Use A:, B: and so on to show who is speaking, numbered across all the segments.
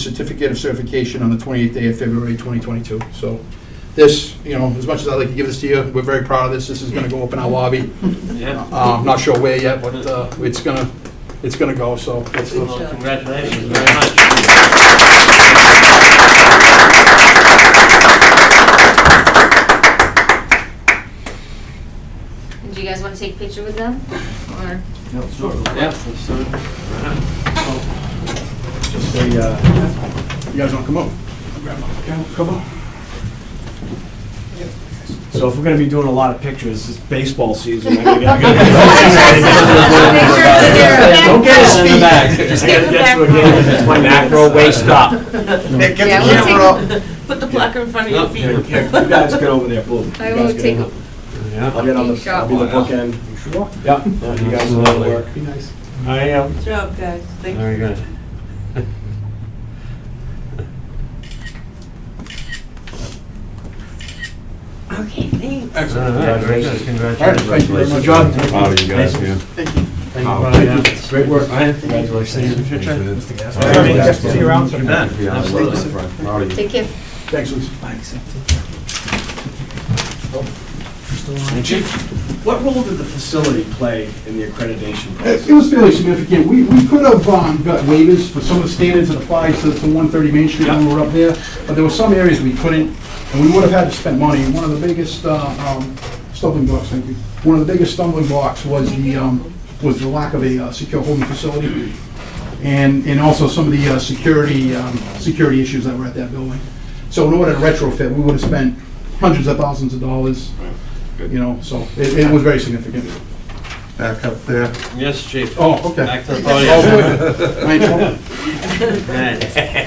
A: certificate of certification on the 28th day of February 2022. So this, you know, as much as I'd like to give this to you, we're very proud of this. This is going to go up in our lobby.
B: Yeah.
A: Uh, I'm not sure where yet, but uh, it's going to, it's going to go, so. uh, that's the-
B: Well, Congratulations very much.
C: And Do you guys want to take a picture with them? Or
B: Yeah. so-
A: Just a, uh, you guys want to come up? Grab my- grab my cover.
D: So if we're gonna be doing a lot of pictures, it's baseball season. I'm gonna- I'm gonna-
C: Pictures
D: Don't get his
B: in the
D: feet.
B: back.
D: I
E: get
D: gotta
E: the
D: get
E: back
D: to a game and it's my macro waist up.
A: Nick, get
C: Yeah,
A: the
C: we'll take-
A: camera up.
E: Put the placard in front of your
B: No,
D: Here,
E: feet.
D: here, You guys get over there, boom. You
C: I
D: guys
C: will
D: get
C: take
D: over. I'll get on
C: Take
D: the,
C: shot.
D: I'll be the bookend. Yeah, yeah, you guys will all work.
A: Be nice.
D: I am.
E: Good job, guys. Thank you.
B: Very good.
E: Okay, thanks.
B: All
A: Excellent.
B: right, very good.
A: All right, thank you very much.
B: Congratulations.
A: John,
F: Proud of you guys, yeah.
A: Thank you. Thank you.
F: Oh,
A: Thank you.
D: Great work.
B: Congratulations. See you in the future.
F: Thanks, man.
D: All right, guys. See you around.
B: You bet.
F: Yeah,
B: Absolutely.
F: Proud of you.
C: Take care.
A: Thanks, Lucy.
D: And Chief, what role did the facility play in the accreditation process?
A: It it was fairly significant. We, we could have um, got waivers for some of the standards that applied to to 130 Main Street when we were up there, but there were some areas we couldn't, and we would have had to spend money. One of the biggest uh, um, stumbling blocks, thank you, one of the biggest stumbling blocks was the, um, was the lack of a uh, secure holding facility, and, and also some of the uh, security, um, security issues that were at that building. So in order to retrofit, we would have spent hundreds of thousands of dollars, you know, so it, it was very significant.
F: Back up there.
B: Yes, chief.
A: Oh, okay.
B: Back to the
A: Oh,
B: podium.
A: wait. Am I in trouble?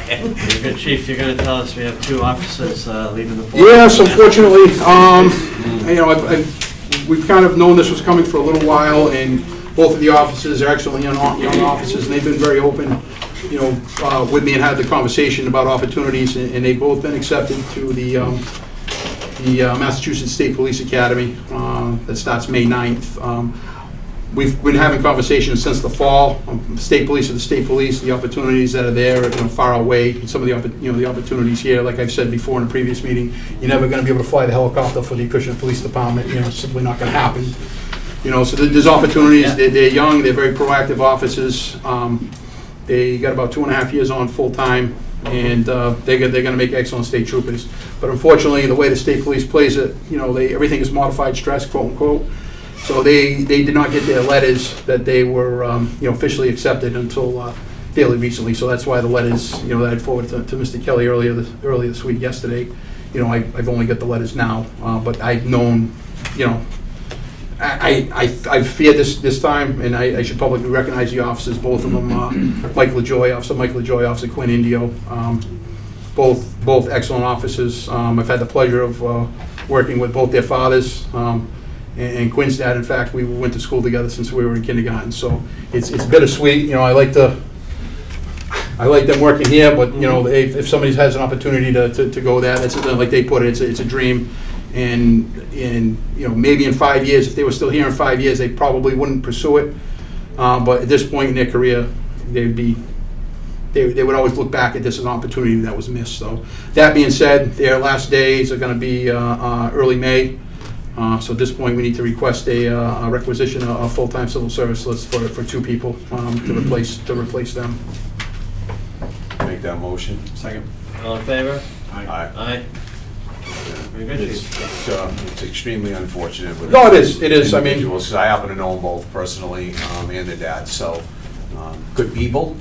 B: Man, You're good, chief. You're gonna tell us we have two officers uh, leaving the force.
A: Yes, unfortunately, um, you know, I've- I've- we've kind of known this was coming for a little while, and both of the officers are excellent young o- young officers, and they've been very open, you know, uh, with me and had the conversation about opportunities, and and they've both been accepted to the um, the uh, Massachusetts State Police Academy um, that starts May 9th. Um, We've been having conversations since the fall, um, state police are the state police, the opportunities that are there are you know, far away, and some of the, oppo- you know, the opportunities here, like I've said before in a previous meeting, you're never gonna be able to fly the helicopter for the Acushnet Police Department, you know, it's simply not gonna happen. You know, so there- there's opportunities, they're, they're young, they're very proactive officers, um, they got about two and a half years on full-time, and uh, they're go- they're going to make excellent state troopers. But unfortunately, the way the state police plays it, you know, they, everything is modified stress, quote-unquote. So they, they did not get their letters that they were, um, you know, officially accepted until uh, fairly recently. So that's why the letters, you know, that I forwarded to to Mr. Kelly earlier, this- earlier this week, yesterday, you know, I- I've only got the letters now, uh, but I've known, you know, I, I, I I fear this, this time, and I, I should publicly recognize the officers, both of them, uh, Mike LaJoy, Officer Mike LaJoy, Officer Quinn Indio, um, both, both excellent officers. Um, I've had the pleasure of, uh, working with both their fathers, um, and and Quinn's dad, in fact, we went to school together since we were in kindergarten, so it's, it's bittersweet, you know, I like to, I like them working here, but, you know, if, if somebody has an opportunity to, to, to go there, that's, like they put it, it's, a- it's a dream. And, and, you know, maybe in five years, if they were still here in five years, they probably wouldn't pursue it. Um, but at this point in their career, they'd be, they, they would always look back at this as an opportunity that was missed, so. That being said, their last days are gonna be, uh, uh, early May. Uh, so at this point, we need to request a, uh, a requisition, a, a full-time civil service list for, for two people, um, to replace, to replace them.
F: Make that motion.
D: Second.
B: All in favor?
F: Aye.
B: Aye. Very good,
F: It's,
B: chief.
F: it's, uh, it's extremely unfortunate with.
A: No, it is, it is, I mean-
F: individuals, 'cause I happen to know them both personally, um, and their dad, so, um, good people,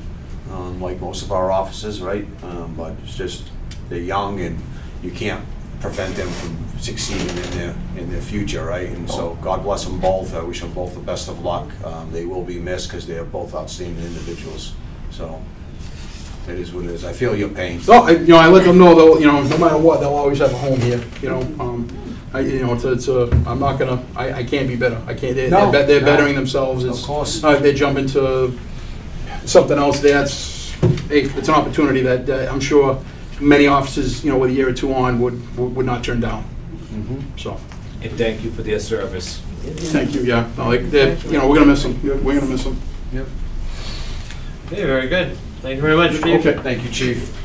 F: um, like most of our officers, right? Um, but it's just, they're young and you can't prevent them from succeeding in their, in their future, right? And so, God bless them both, I wish them both the best of luck, um, they will be missed, cause they are both outstanding individuals, so, it is what it is, I feel your pain.
A: No, I, you know, I let them know though, you know, no matter what, they'll always have a home here, you know, um, I, you know, it's, a- it's a, I'm not gonna, I, I can't be better, I can't, they're, they're
F: No,
A: bet- they're
F: no.
A: bettering themselves,
F: Of
A: it's,
F: course.
A: uh, they jump into something else that's, hey, it's an opportunity that, uh I'm sure many officers, you know, with a year or two on would, would would not turn down,
F: Mhm.
A: so.
G: and thank you for their service.
A: Thank you, yeah, no, like, they're, you know, we're gonna miss them, we're gonna miss them.
B: Okay, very good. Thank you very much, chief.
A: Okay.
F: Thank you, chief.